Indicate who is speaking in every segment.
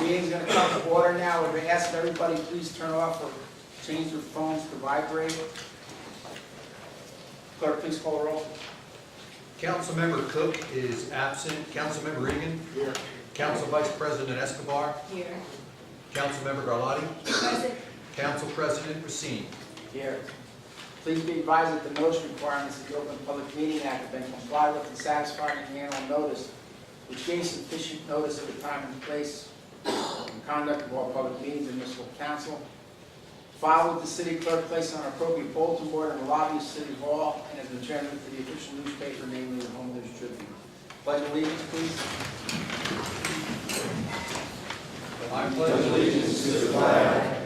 Speaker 1: meeting's gonna come to order now. We're gonna ask everybody, please turn off or change their phones to vibrate. Clerk, please call the roll.
Speaker 2: Councilmember Cook is absent. Councilmember Egan.
Speaker 1: Here.
Speaker 2: Council Vice President Escobar.
Speaker 3: Here.
Speaker 2: Councilmember Garlotti.
Speaker 3: Present.
Speaker 2: Council President Racine.
Speaker 1: Here. Please be advised that the notice requirements of the Open Public Meeting Act have been complied with and satisfied in the annual notice, which gave sufficient notice of the time and place and conduct of all public meetings in municipal council. Filed with the city clerk, placed on appropriate bulletin board in the lobby of City Hall, and has been transmitted to the official newspaper, namely the Home News Tribune. Pledge allegiance, please.
Speaker 2: I pledge allegiance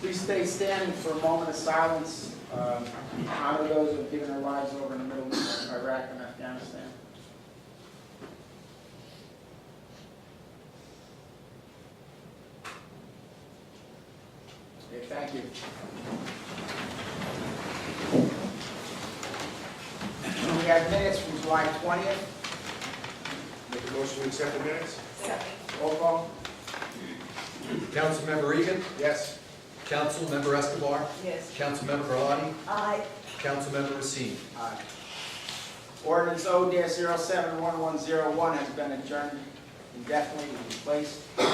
Speaker 1: Please stay standing for a moment of silence, uh, in honor of those who have given their lives over in the Middle East, Iraq, and Afghanistan. Okay, thank you. We have minutes from July 20th,
Speaker 4: Make a motion to accept the minutes?
Speaker 3: Second.
Speaker 1: roll call.
Speaker 2: Councilmember Egan.
Speaker 4: Yes.
Speaker 2: Councilmember Escobar.
Speaker 3: Yes.
Speaker 2: Councilmember Garlotti.
Speaker 3: Aye.
Speaker 2: Councilmember Racine.
Speaker 1: Aye. Ordinance O dash zero seven one one zero one has been adjourned indefinitely and replaced.
Speaker 5: No,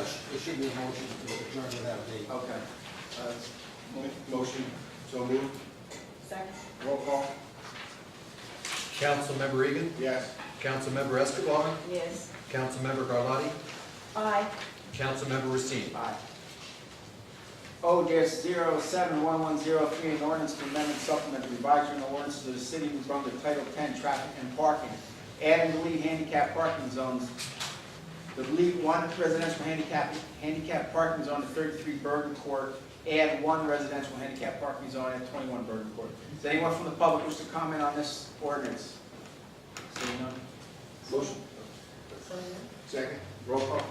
Speaker 5: it should- it should be a motion to adjourn without a date.
Speaker 1: Okay. Uh,
Speaker 4: Make a Motion, so moved?
Speaker 3: Second.
Speaker 1: Roll call.
Speaker 2: Councilmember Egan.
Speaker 4: Yes.
Speaker 2: Councilmember Escobar.
Speaker 3: Yes.
Speaker 2: Councilmember Garlotti.
Speaker 3: Aye.
Speaker 2: Councilmember Racine.
Speaker 1: Aye. O dash zero seven one one zero three, an ordinance to amend and supplement the revising of ordinance to the city of New Brunswick Title Ten Traffic and Parking, adding the lead handicap parking zones. The lead one residential handicap, handicap parking zone at thirty-three Bergen Court, add one residential handicap parking zone at twenty-one Bergen Court. Does anyone from the public wish to comment on this ordinance? Seeing none,
Speaker 4: Motion,
Speaker 3: So moved.
Speaker 4: second?
Speaker 1: roll call.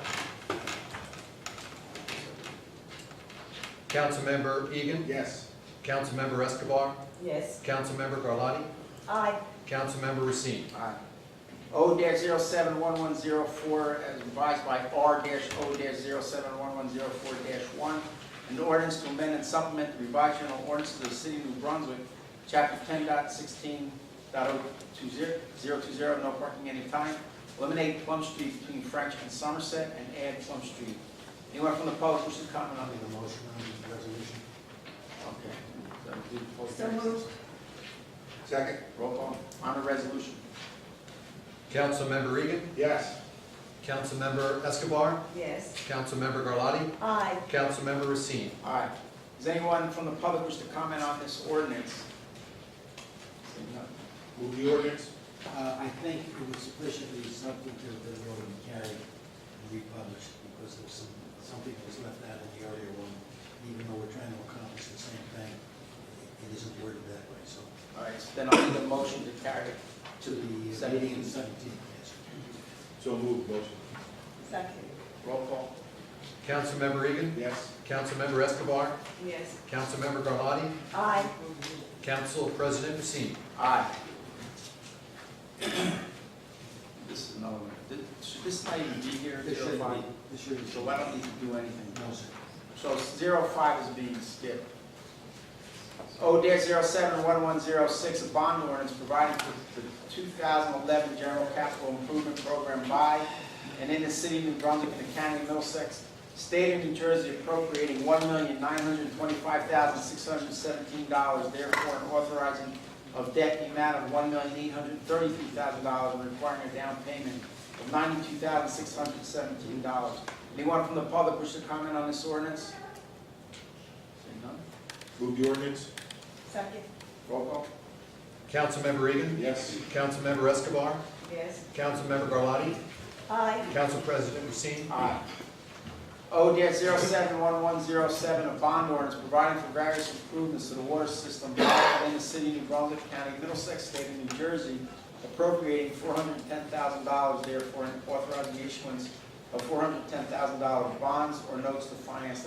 Speaker 2: Councilmember Egan.
Speaker 4: Yes.
Speaker 2: Councilmember Escobar.
Speaker 3: Yes.
Speaker 2: Councilmember Garlotti.
Speaker 3: Aye.
Speaker 2: Councilmember Racine.
Speaker 1: Aye. O dash zero seven one one zero four, as revised by R dash O dash zero seven one one zero four dash one, an ordinance to amend and supplement the revised general ordinance of the city of New Brunswick, chapter ten dot sixteen dot oh two zero, zero two zero, no parking anytime, eliminate Plum Street between French and Somerset, and add Plum Street. Anyone from the public wish to comment
Speaker 5: I'll
Speaker 1: on
Speaker 5: make
Speaker 1: it?
Speaker 5: a motion on the resolution.
Speaker 1: Okay. So do the full
Speaker 3: So
Speaker 1: text.
Speaker 3: moved.
Speaker 4: Second?
Speaker 1: Roll call on the resolution.
Speaker 2: Councilmember Egan.
Speaker 4: Yes.
Speaker 2: Councilmember Escobar.
Speaker 3: Yes.
Speaker 2: Councilmember Garlotti.
Speaker 3: Aye.
Speaker 2: Councilmember Racine.
Speaker 1: All right. Does anyone from the public wish to comment on this ordinance? Seeing none.
Speaker 4: Move the ordinance?
Speaker 5: Uh, I think it was sufficiently substantive that it ought to be carried and republished because there's some, something that was left out in the earlier one. Even though we're trying to accomplish the same thing, it- it isn't worded that way, so
Speaker 1: All right, so then I'll need a motion to carry. it.
Speaker 5: to the uh, meeting in seventeen, yes.
Speaker 4: So moved, motion?
Speaker 3: Second.
Speaker 1: Roll call.
Speaker 2: Councilmember Egan.
Speaker 4: Yes.
Speaker 2: Councilmember Escobar.
Speaker 3: Yes.
Speaker 2: Councilmember Garlotti.
Speaker 3: Aye.
Speaker 2: Council President Racine.
Speaker 1: Aye. This is another one. Th- Should this not even be here?
Speaker 5: This should
Speaker 1: Zero
Speaker 5: be,
Speaker 1: five?
Speaker 5: this should be.
Speaker 1: So why don't we do anything?
Speaker 5: No, sir.
Speaker 1: So zero five is being skipped. O dash zero seven one one zero six, a bond ordinance providing for the two thousand eleven general capital improvement program by and in the city of New Brunswick and the county of Middlesex, state of New Jersey appropriating one million nine hundred twenty-five thousand six hundred seventeen dollars, therefore and authorizing of debt in the amount of one million eight hundred thirty-three thousand dollars and requiring a down payment of ninety-two thousand six hundred seventeen dollars. Anyone from the public wish to comment on this ordinance? Seeing none,
Speaker 4: Move the ordinance?
Speaker 3: Second.
Speaker 1: roll call.
Speaker 2: Councilmember Egan.
Speaker 4: Yes.
Speaker 2: Councilmember Escobar.
Speaker 3: Yes.
Speaker 2: Councilmember Garlotti.
Speaker 3: Aye.
Speaker 2: Council President Racine.
Speaker 1: Aye. O dash zero seven one one zero seven, a bond ordinance providing for various improvements to the water system in the city of New Brunswick, County of Middlesex, State of New Jersey, appropriating four hundred and ten thousand dollars therefore and authorizing the issuance of four hundred and ten thousand dollar bonds or notes to finance